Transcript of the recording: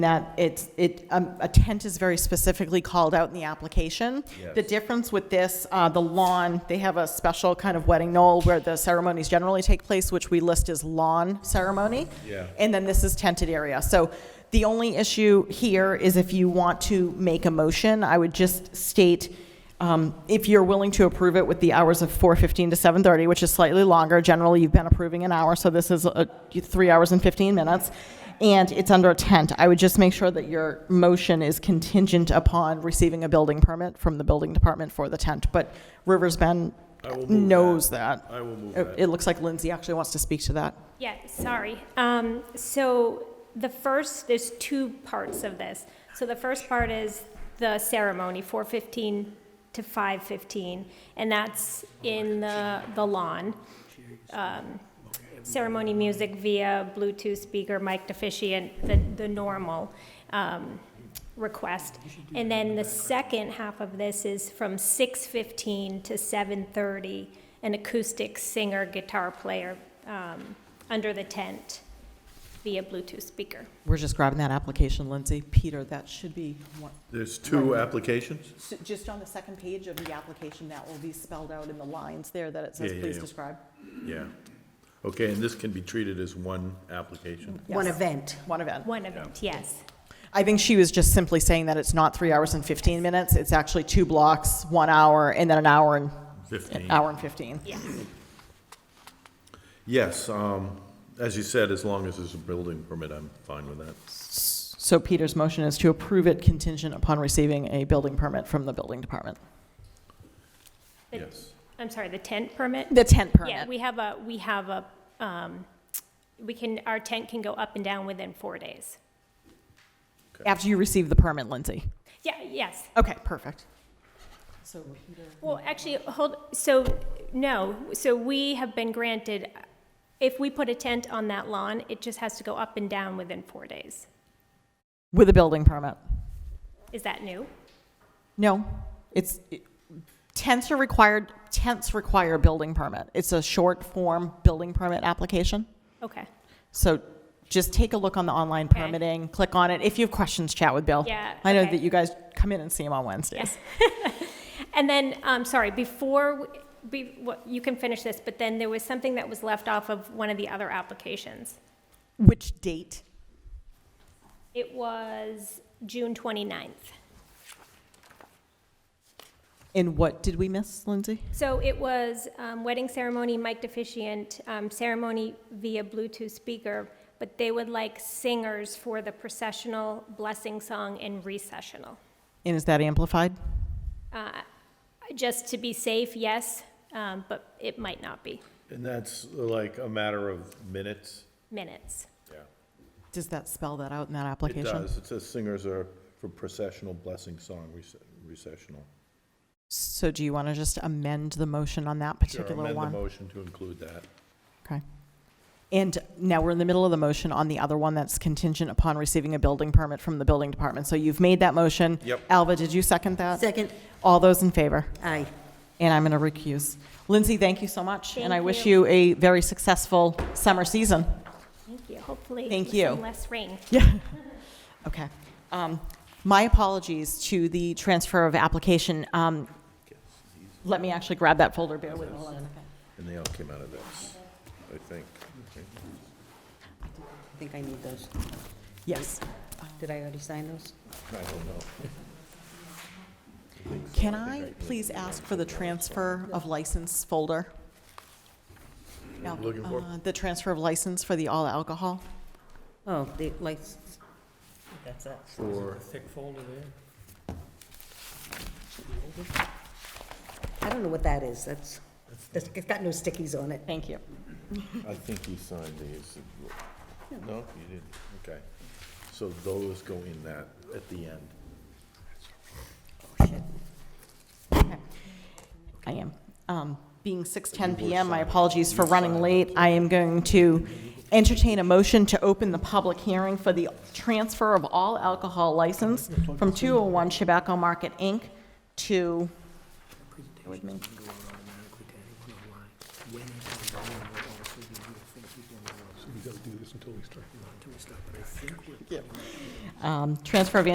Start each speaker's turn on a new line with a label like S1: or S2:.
S1: that it's, it, um, a tent is very specifically called out in the application.
S2: Yes.
S1: The difference with this, uh, the lawn, they have a special kind of wedding knoll where the ceremonies generally take place, which we list as lawn ceremony.
S2: Yeah.
S1: And then this is tented area. So the only issue here is if you want to make a motion, I would just state, um, if you're willing to approve it with the hours of 4:15 to 7:30, which is slightly longer, generally you've been approving an hour, so this is uh, three hours and 15 minutes, and it's under a tent. I would just make sure that your motion is contingent upon receiving a building permit from the building department for the tent, but Rivers Bend
S2: I will move
S1: knows that.
S2: I will move
S1: It-
S2: that.
S1: It looks like Lindsay actually wants to speak to that.
S3: Yeah, sorry. Um, So the first, there's two parts of this. So the first part is the ceremony, 4:15 to 5:15, and that's in the the lawn. Um, Ceremony music via Bluetooth speaker, mic deficient, the the normal um, request. And then the second half of this is from 6:15 to 7:30, an acoustic singer, guitar player um, under the tent via Bluetooth speaker.
S1: We're just grabbing that application, Lindsay. Peter, that should be, one-
S2: There's two applications?
S1: so just on the second page of the application, that will be spelled out in the lines there that it
S2: Yeah,
S1: says,
S2: yeah,
S1: please
S2: yeah.
S1: describe.
S2: Yeah. Okay, and this can be treated as one application?
S4: one
S1: Yes.
S4: event.
S1: One event.
S3: One event, yes.
S1: I think she was just simply saying that it's not three hours and 15 minutes. It's actually two blocks, one hour, and then an hour and, an
S2: 15?
S1: hour and 15.
S3: Yes.
S2: Yes, um, as you said, as long as there's a building permit, I'm fine with that.
S1: So Peter's motion is to approve it contingent upon receiving a building permit from the building department.
S3: The-
S2: Yes.
S3: I'm sorry, the tent permit?
S1: The tent
S3: Yeah,
S1: permit.
S3: we have a, we have a, um, we can, our tent can go up and down within four days.
S1: After you receive the permit, Lindsay.
S3: Yeah, yes.
S1: Okay, perfect. So Peter.
S3: Well, actually, hold, so, no, so we have been granted, if we put a tent on that lawn, it just has to go up and down within four days.
S1: With a building permit.
S3: Is that new?
S1: No, it's, it- tents are required, tents require building permit. It's a short form building permit application.
S3: Okay.
S1: So just take a look on the online
S3: Okay.
S1: permitting, click on it. If you have questions, chat with Bill.
S3: Yeah,
S1: I know
S3: okay.
S1: that you guys come in and see him on Wednesdays.
S3: And then, um, sorry, before, w- be, what, you can finish this, but then there was something that was left off of one of the other applications.
S1: Which date?
S3: It was June 29th.
S1: And what did we miss, Lindsay?
S3: So it was, um, wedding ceremony, mic deficient, um, ceremony via Bluetooth speaker, but they would like singers for the processional, blessing song, and recessional.
S1: And is that amplified?
S3: Uh, just to be safe, yes, um, but it might not be.
S2: And that's like a matter of minutes?
S3: Minutes.
S2: Yeah.
S1: Does that spell that out in that
S2: It
S1: application?
S2: does. It says singers are for processional blessing song, rece- recessional.
S1: So do you want to just amend the motion on that
S2: Sure,
S1: particular one?
S2: Amend the motion to include that.
S1: Okay. And now we're in the middle of the motion on the other one that's contingent upon receiving a building permit from the building department. So you've made that motion.
S2: Yep.
S1: Alva, did you second that?
S4: Second,
S1: All those in favor?
S4: aye.
S1: And I'm going to recuse. Lindsay, thank you so much. And I
S3: Thank
S1: wish
S3: you.
S1: you a very successful summer season.
S3: Thank you. Hopefully.
S1: Thank
S3: with
S1: you.
S3: some Less rain.
S1: Yeah. Okay. Um, My apologies to the transfer of application. Um, Let me actually grab that folder, bear with me one second.
S2: And they all came out of this, I think.
S4: I think I need those.
S1: Yes.
S4: Did I already sign those?
S2: I don't know.
S1: Can I please ask for the transfer of license folder? No,
S2: Looking for?
S1: uh, The transfer of license for the all alcohol?
S4: Oh, the license. That's it.
S2: For,
S5: thick folder there.
S4: I don't know what that is. That's, that's- it's got no stickies on it.
S1: Thank you.
S2: I think you signed these. No, you didn't. Okay. So those go in that at the end.
S1: I am. Um, Being 6:10 PM, my apologies for running late. I am going to entertain a motion to open the public hearing for the transfer of all alcohol license from 201 Chabaco Market, Inc. to,
S6: automatically to anyone online. When and how long will also be useful people in the world.
S5: until we start. Until we stop, but I think we're.
S1: Um, Transfer of